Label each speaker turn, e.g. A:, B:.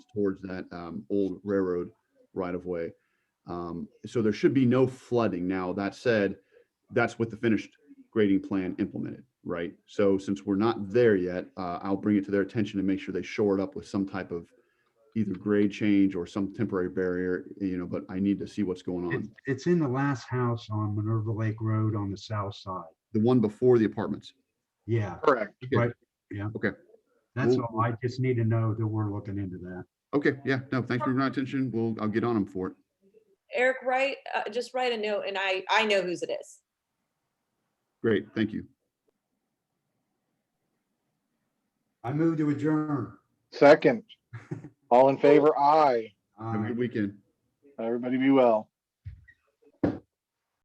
A: towards that um, old railroad right of way. Um, So there should be no flooding. Now, that said, that's with the finished grading plan implemented, right? So since we're not there yet, uh, I'll bring it to their attention and make sure they shore it up with some type of either grade change or some temporary barrier, you know, but I need to see what's going
B: It's,
A: on.
B: it's in the last house on Minerva Lake Road on the south side.
A: The one before the apartments.
B: Yeah,
A: Correct.
B: Right. yeah.
A: Okay.
B: That's
A: Well-
B: all. I just need to know that we're looking into that.
A: Okay, yeah, no, thanks for bringing that attention. We'll, I'll get on them for it.
C: Eric, write, uh, just write a note and I, I know whose it is.
A: Great, thank you.
B: I move to adjourn.
D: Second. All in favor? Aye.
A: Have a
B: Uh,
A: good weekend.
D: Everybody be well.